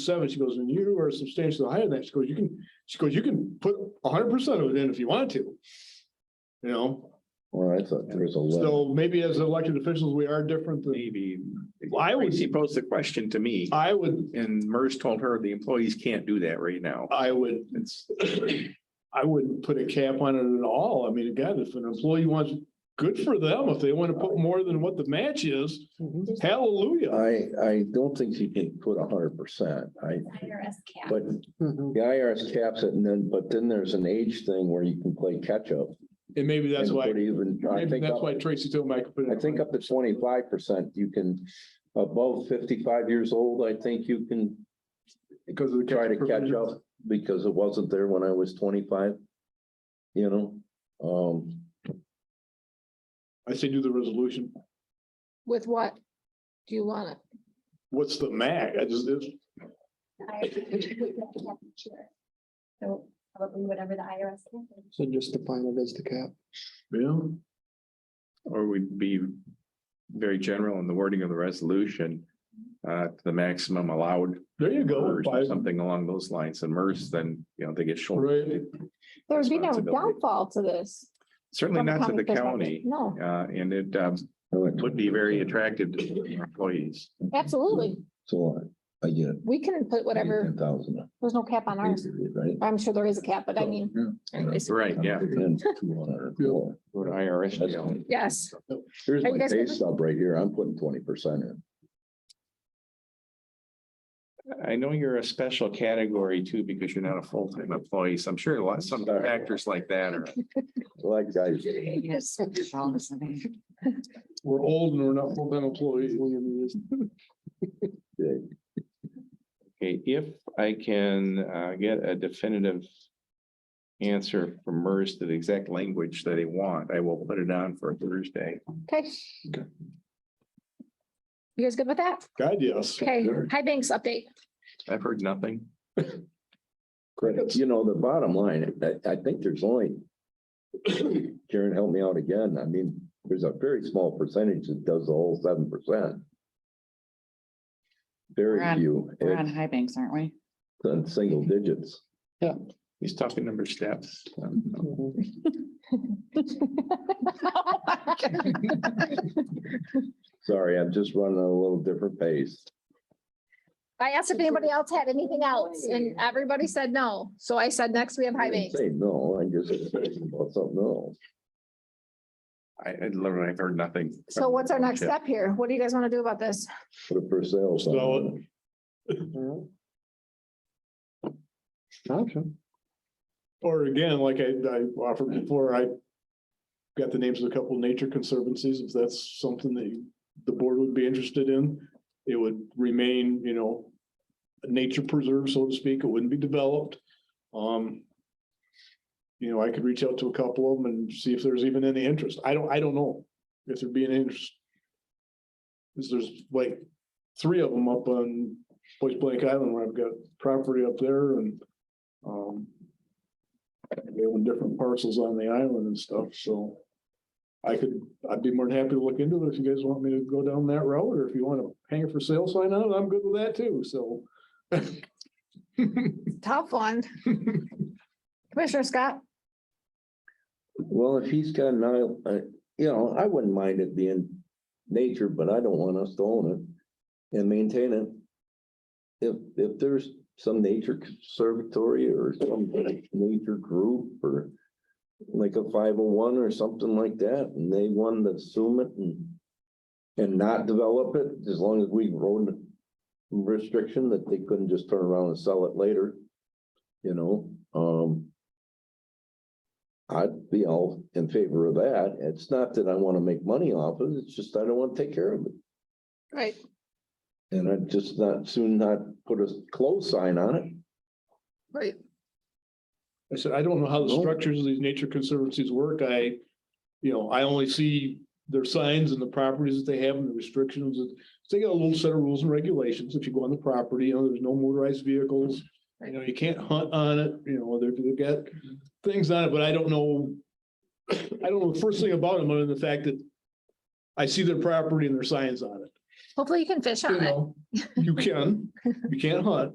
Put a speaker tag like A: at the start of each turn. A: seven, she goes, and you are substantially higher than that. She goes, you can, she goes, you can put hundred percent of it in if you want to. You know,
B: Well, I thought there was a letter.
A: so maybe as elected officials, we are different than,
C: Maybe.
A: I would-
C: Tracy posed the question to me
A: I would,
C: and MERS told her the employees can't do that right now.
A: I would,
C: It's,
A: I wouldn't put a cap on it at all. I mean, again, if an employee wants, good for them. If they want to put more than what the match is,
D: Mm-hmm.
A: hallelujah.
B: I, I don't think you can put a hundred percent, I,
E: IRS cap.
B: but
D: Mm-hmm.
B: the IRS caps it and then, but then there's an age thing where you can play catch up.
A: And maybe that's
B: and
A: why,
B: put Even, I
A: maybe
B: think,
A: that's
B: up-
A: why Tracy told me I could put
B: I
A: it.
B: think up to twenty-five percent, you can, above fifty-five years old, I think you can
A: Because of the.
B: try to catch
A: provisions.
B: up because it wasn't there when I was twenty-five. You know, um,
A: I say do the resolution.
D: With what? Do you want it?
A: What's the max? I just, it's,
E: I- we have to have each year. So probably whatever the IRS. cap is.
F: So just define it as the cap.
A: yeah.
C: or we'd be very general in the wording of the resolution. Uh, to the maximum allowed.
A: There you go.
C: MERS or
A: Five-
C: Something along those lines and MERS, then, you know, they get
A: Right.
C: shouldered.
D: There would be no
C: Responsibility.
D: downfall to this.
C: Certainly
D: from
C: not
D: a
C: to
D: county
C: the
D: perspective.
C: county,
D: No,
C: uh, and it, um, would be very attractive to employees.
D: absolutely.
B: So I, I get it.
D: We can put whatever,
B: Ten thousand,
D: there's no cap on ours.
B: right?
D: I'm sure there is a cap, but I mean, anyways,
C: Mm. Right, yeah.
B: Then 200 more.
C: Go to IRS
B: That's
C: jail.
B: fine.
D: yes.
B: Here's
D: Are you
B: my
D: guys
B: pay
D: gonna-
B: stub right here. I'm putting twenty percent in.
C: I know you're a special category too, because you're not a full-time employee, so I'm sure a lot, some
B: Sorry.
C: factors like that are.
B: Like guys,
D: Yes.
A: We're old and we're not full-time employees.
C: Okay, if I can uh get a definitive. Answer from MERS to the exact language that they want, I will put it on for Thursday.
D: Okay.
A: Okay.
D: You guys good with that?
A: God, yes.
D: Okay,
B: Sure.
D: high banks update.
C: I've heard nothing.
B: credits, you know, the bottom line, I, I think there's only. Karen, help me out again. I mean, there's a very small percentage that does the whole seven percent.
G: We're
B: Very
G: on-
B: few,
G: We're on
B: it's
G: high banks, aren't we?
B: in single digits.
C: He's talking number steps. Um,
B: Sorry, I'm just running at a little different pace.
D: I asked if anybody else had anything else and everybody said no. So I said, next we have high
B: I didn't
D: banks.
B: Say no, I just said about something else.
C: I I literally, I've heard nothing.
D: So what's our next step here? What do you guys want to do about this?
B: Put a for sale sign on
A: Sell
B: it.
A: Option. Or again, like I, I offered before, I got the names of a couple of nature conservancies. If that's something that you- the board would be interested in, it would remain, you know, a nature preserve, so to speak. It wouldn't be developed. Um, you know, I could reach out to a couple of them and see if there's even any interest. I don't, I don't know if there'd be an interest. 'Cause there's like three of them up on Point Blank Island where I've got property up there and um. They own different parcels on the island and stuff, so. I could, I'd be more than happy to look into it if you guys want me to go down that road, or if you wanna hang it for sale sign out, I'm good with that too, so.
D: Tough one. Commissioner Scott?
B: Well, if he's got an aisle, uh, you know, I wouldn't mind it being nature, but I don't want us to own it and maintain it. If, if there's some nature conservatory or some nature group or like a five oh one or something like that, and they wanted to assume it and and not develop it, as long as we wrote a restriction that they couldn't just turn around and sell it later, you know, um. I'd be all in favor of that. It's not that I want to make money off of it, it's just I don't want to take care of it.
D: Right.
B: And I'd just not, soon not put a close sign on it.
D: Right.
A: I said, I don't know how the
B: No.
A: structures of these nature conservancies work. I, you know, I only see their signs and the properties that they have and the restrictions. and- so They got a little set of rules and regulations. If you go on the property, you know, there's no motorized vehicles. You know, you can't hunt on it, you know, they've, they've got things on it, but I don't know. I don't know the first thing about them other than the fact that I see their property and their signs on it.
D: Hopefully you can fish
A: You
D: on it.
A: know, you can, you can't hunt.